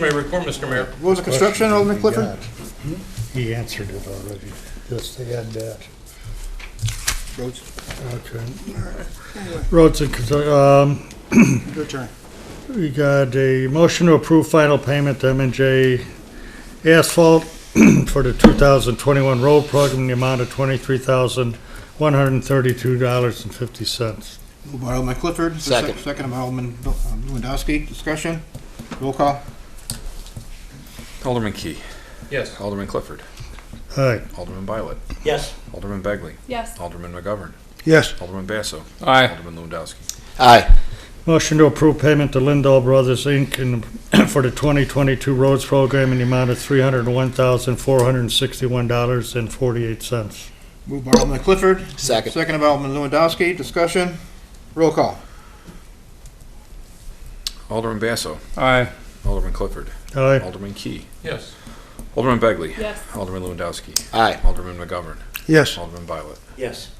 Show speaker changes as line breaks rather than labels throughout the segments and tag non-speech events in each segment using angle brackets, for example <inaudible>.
My report, Mr. Mayor.
What was the construction, Alderman Clifford?
He answered it already. Yes, they had that.
Rhodes,
Okay. Roads and, constru- um,
your turn.
we got a motion to approve final payment to M and J Asphalt <clears throat> for the two thousand twenty-one road program in the amount of twenty-three thousand, one hundred and thirty-two dollars and fifty cents.
Moved by Alderman Clifford.
Second.
Second by Alderman Bill- um, Lewandowski. Discussion? Roll call.
Alderman Key.
Yes.
Alderman Clifford.
All right,
Alderman Violet.
Yes.
Alderman Begley.
Yes,
Alderman McGovern.
Yes.
Alderman Basso.
Aye.
Alderman Lewandowski.
Aye.
motion to approve payment to Lindall Brothers Inc. in <clears throat> the- for the twenty twenty-two roads program in the amount of three hundred and one thousand, four hundred and sixty-one dollars and forty-eight cents.
Moved by Alderman Clifford.
Second.
Second by Alderman Lewandowski. Discussion? Roll call.
Alderman Basso.
Aye.
Alderman Clifford.
Aye.
Alderman Key.
Yes.
Alderman Begley.
yes,
Alderman Lewandowski.
Aye.
Alderman McGovern.
Yes.
Alderman Violet.
Yes.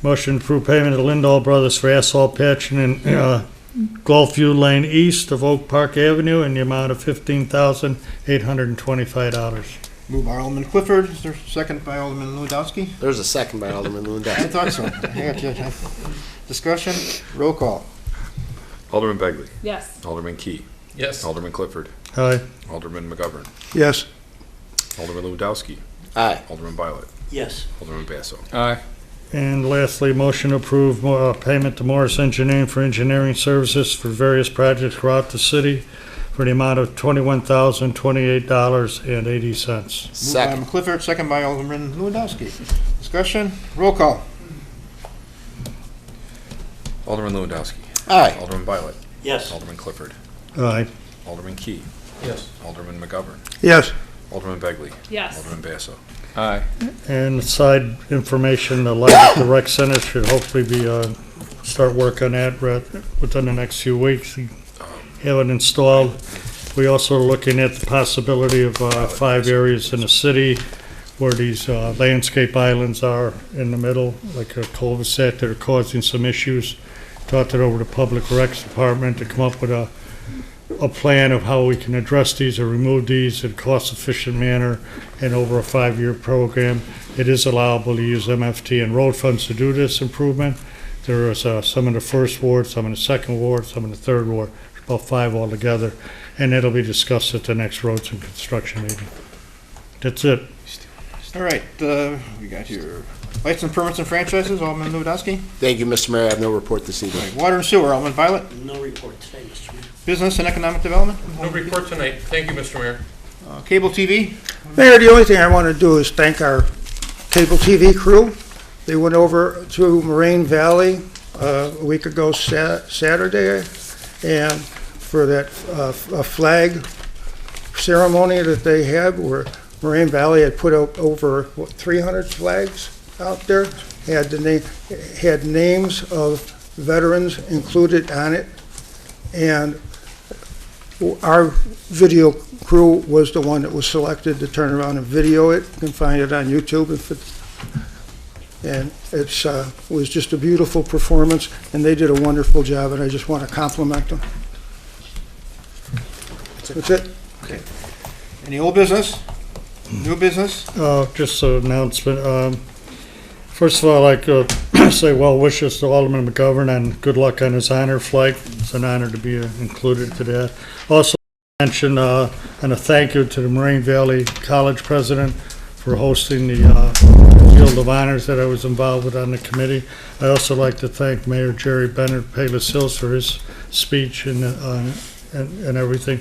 Motion to approve payment to Lindall Brothers for asphalt patching in uh, Gulfview Lane East of Oak Park Avenue in the amount of fifteen thousand eight hundred and twenty-five dollars.
Moved by Alderman Clifford. Is there a second by Alderman Lewandowski?
There's a second by Alderman
I
Lewandowski.
thought so. <laughs> I got you. Discussion? Roll call.
Alderman Begley.
yes,
Alderman Key.
Yes.
Alderman Clifford.
Aye.
Alderman McGovern.
Yes.
Alderman Lewandowski.
Aye.
Alderman Violet.
Yes.
Alderman Basso.
Aye.
And lastly, motion to approve uh, payment to Morris Engineering for engineering services for various projects throughout the city for the amount of twenty-one thousand twenty-eight dollars and eighty cents.
Moved by Alderman
Second.
Clifford, second by Alderman Lewandowski. Discussion? Roll call.
Alderman Lewandowski.
Aye.
Alderman Violet.
Yes.
Alderman Clifford.
Aye.
Alderman Key.
Yes.
Alderman McGovern.
Yes.
Alderman Begley.
yes.
Alderman Basso.
Aye.
And side information, the light at the rec center should hopefully be, uh, start work on that re- within the next few weeks. Have it installed. We also are looking at the possibility of, uh, five areas in the city where these, uh, landscape islands are in the middle, like a cul-de-sac that are causing some issues. Talked it over to Public Recs Department to come up with a, a plan of how we can address these or remove these in a cost-efficient manner and over a five-year program. It is allowable to use MFT and road funds to do this improvement. There is uh, some in the first ward, some in the second ward, some in the third ward, about five altogether, and it'll be discussed at the next roads and construction meeting. That's it.
All right, uh, we got your lights and permits and franchises, Alderman Lewandowski.
Thank you, Mr. Mayor. I have no report this
All
evening.
right, Water and sewer, Alderman Violet.
No report today, Mr. Mayor.
Business and Economic Development,
No report tonight. Thank you, Mr. Mayor.
uh, Cable TV.
Mayor, the only thing I want to do is thank our cable TV crew. They went over to Moraine Valley uh, a week ago Sa- Saturday, and for that uh, a flag ceremony that they had, where Moraine Valley had put up over what, 300 flags out there, had the name, had names of veterans included on it, and our video crew was the one that was selected to turn around and video it. You can find it on YouTube if it, and it's, uh, was just a beautiful performance, and they did a wonderful job, and I just want to compliment them. That's it.
Any old business? New business?
Uh, just an announcement. Um, first of all, I'd like to <clears throat> say well wishes to Alderman McGovern and good luck on his honor flight. It's an honor to be uh, included to that. Also, mention uh, and a thank you to the Moraine Valley College president for hosting the uh, Field of Honors that I was involved with on the committee. I also like to thank Mayor Jerry Bennett Palis Hills for his speech and, uh, and, and everything.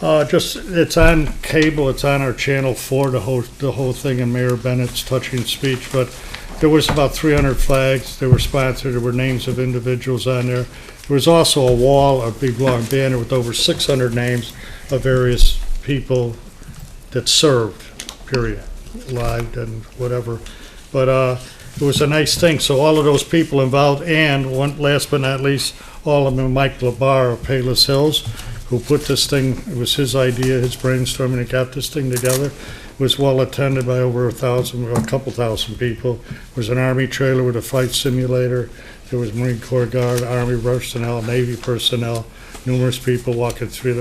Uh, just, it's on cable, it's on our Channel 4, the whole, the whole thing, and Mayor Bennett's touching speech, but there was about 300 flags, they were sponsored, there were names of individuals on there. There was also a wall, a big long banner with over 600 names of various people that served, period, live and whatever. But, uh, it was a nice thing, so all of those people involved, and one, last but not least, Alderman Mike Labar of Payless Hills, who put this thing, it was his idea, his brainstorming, that got this thing together, It was well attended by over a thousand, a couple thousand people. It was an Army trailer with a flight simulator, there was Marine Corps Guard, Army personnel, Navy personnel, numerous people walking through the